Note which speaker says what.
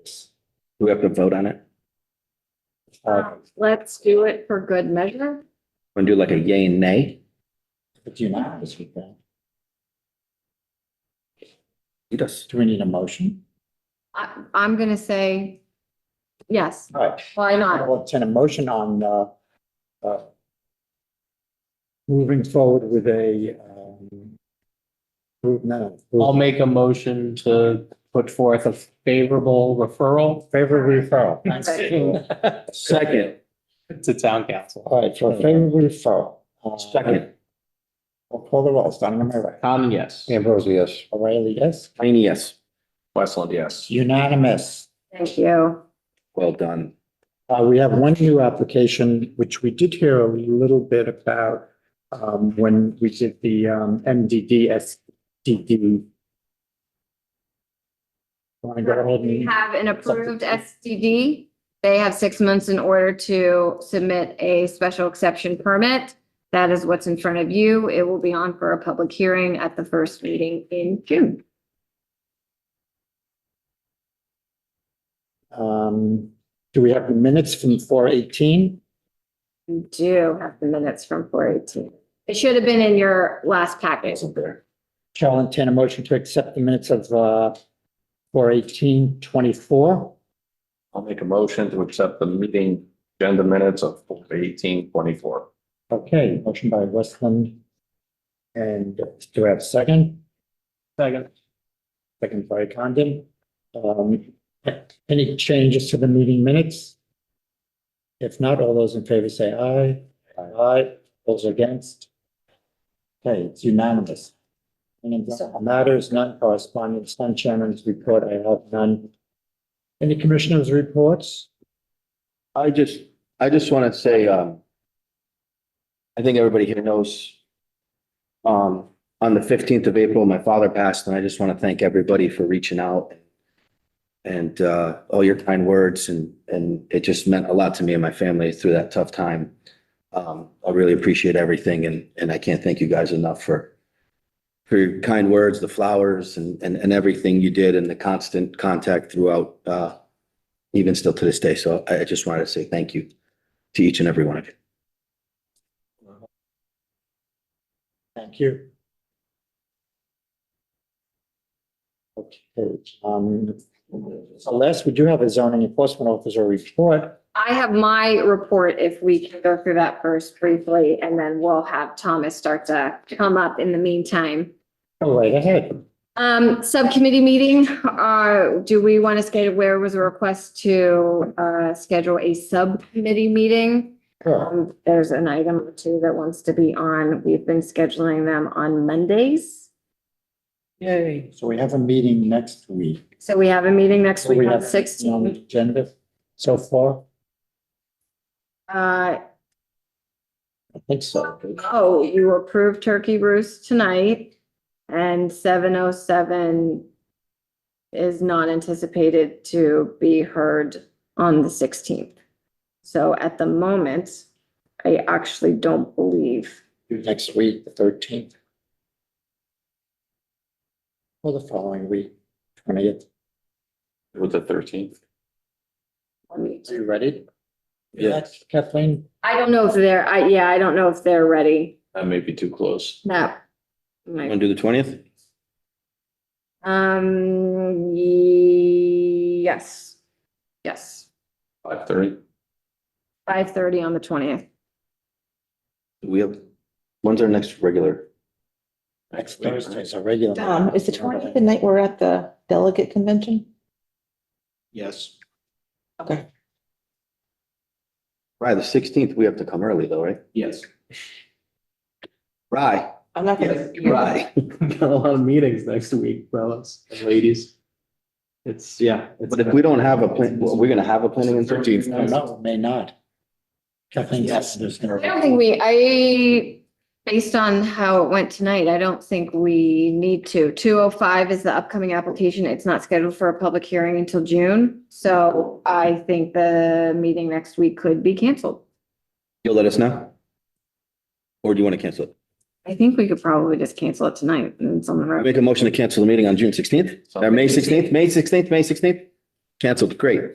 Speaker 1: Do we have to vote on it?
Speaker 2: Uh,
Speaker 3: Let's do it for good measure.
Speaker 1: And do like a yay and nay?
Speaker 2: but you're not honest with that.
Speaker 1: Lead us.
Speaker 2: Do we need a motion?
Speaker 3: I, I'm gonna say yes,
Speaker 2: All right.
Speaker 3: why not?
Speaker 2: I'll attend a motion on, uh, uh, moving forward with a, um, move- no, no,
Speaker 4: I'll make a motion to put forth a favorable referral
Speaker 2: favorable referral.
Speaker 4: to
Speaker 1: Second,
Speaker 4: town council.
Speaker 2: All right, for a favorable referral. uh,
Speaker 1: second,
Speaker 2: I'll call the roll, starting on my right.
Speaker 4: Tom, yes.
Speaker 5: Ambrosi, yes.
Speaker 2: O'Reilly, yes?
Speaker 1: Mayne, yes.
Speaker 5: Westland, yes.
Speaker 2: Unanimous.
Speaker 3: Thank you.
Speaker 1: Well done.
Speaker 2: Uh, we have one new application, which we did hear a little bit about, um, when we did the, um, MDD SDD. Want to go ahead
Speaker 3: We
Speaker 2: and,
Speaker 3: have an approved SDD. They have six months in order to submit a special exception permit. That is what's in front of you. It will be on for a public hearing at the first meeting in June.
Speaker 2: um, do we have the minutes from four eighteen?
Speaker 3: We do have the minutes from four eighteen. It should have been in your last package.
Speaker 1: Wasn't there?
Speaker 2: Shall entertain a motion to accept the minutes of, uh, four eighteen twenty-four.
Speaker 5: I'll make a motion to accept the meeting agenda minutes of eighteen twenty-four.
Speaker 2: Okay, motion by Westland. And do I have a second?
Speaker 4: Second.
Speaker 2: Second by Condon. Um, any changes to the meeting minutes? If not, all those in favor say aye. Aye. Those against? Okay, it's unanimous. Any matters, none correspondence, none chairman's report, I have none. Any commissioners' reports?
Speaker 1: I just, I just want to say, um, I think everybody here knows, um, on the fifteenth of April, my father passed, and I just want to thank everybody for reaching out and, uh, all your kind words, and, and it just meant a lot to me and my family through that tough time. Um, I really appreciate everything, and, and I can't thank you guys enough for, for your kind words, the flowers, and, and, and everything you did, and the constant contact throughout, uh, even still to this day. So I I just wanted to say thank you to each and every one of you.
Speaker 2: Thank you. Okay, um, so last, we do have a zoning enforcement officer report.
Speaker 3: I have my report, if we can go through that first briefly, and then we'll have Thomas start to come up in the meantime.
Speaker 2: Go right ahead.
Speaker 3: Um, subcommittee meeting, uh, do we want to schedule, where was a request to, uh, schedule a subcommittee meeting?
Speaker 2: Sure.
Speaker 3: Um, there's an item or two that wants to be on, we've been scheduling them on Mondays.
Speaker 4: Yay.
Speaker 2: So we have a meeting next week.
Speaker 3: So we have a meeting next
Speaker 2: So we
Speaker 3: week on
Speaker 2: have on the
Speaker 3: sixteen.
Speaker 2: Agenda so far,
Speaker 3: Uh,
Speaker 2: I think so.
Speaker 3: oh, you approved turkey roost tonight and seven oh seven is not anticipated to be heard on the sixteenth. So at the moment, I actually don't believe,
Speaker 2: Next week, the thirteenth. Or the following week, twentieth.
Speaker 5: With the thirteenth.
Speaker 3: let me-
Speaker 2: Are you ready?
Speaker 5: Yeah,
Speaker 2: Kathleen?
Speaker 3: I don't know if they're, I, yeah, I don't know if they're ready.
Speaker 5: that may be too close.
Speaker 3: No.
Speaker 1: Want to do the twentieth?
Speaker 3: Um, yes, yes,
Speaker 5: Five thirty.
Speaker 3: five thirty on the twentieth.
Speaker 1: We have, when's our next regular?
Speaker 2: Next Thursday is a regular.
Speaker 6: Um, is the twentieth the night we're at the delegate convention?
Speaker 5: Yes.
Speaker 6: Okay.
Speaker 1: Right, the sixteenth, we have to come early though, right?
Speaker 5: Yes.
Speaker 1: Right,
Speaker 6: I'm not gonna. be here.
Speaker 1: right.
Speaker 4: Got a lot of meetings next week, fellas and ladies. It's, yeah. it's-
Speaker 1: But if we don't have a plan, well, we're gonna have a planning and thirteenth.
Speaker 2: No, no, may not. Kathleen, yes.
Speaker 3: I don't think we, I, based on how it went tonight, I don't think we need to. Two oh five is the upcoming application. It's not scheduled for a public hearing until June. So I think the meeting next week could be canceled.
Speaker 1: You'll let us know? Or do you want to cancel it?
Speaker 3: I think we could probably just cancel it tonight and it's on the road.
Speaker 1: Make a motion to cancel the meeting on June sixteenth, May sixteenth, May sixteenth, May sixteenth? Canceled, great.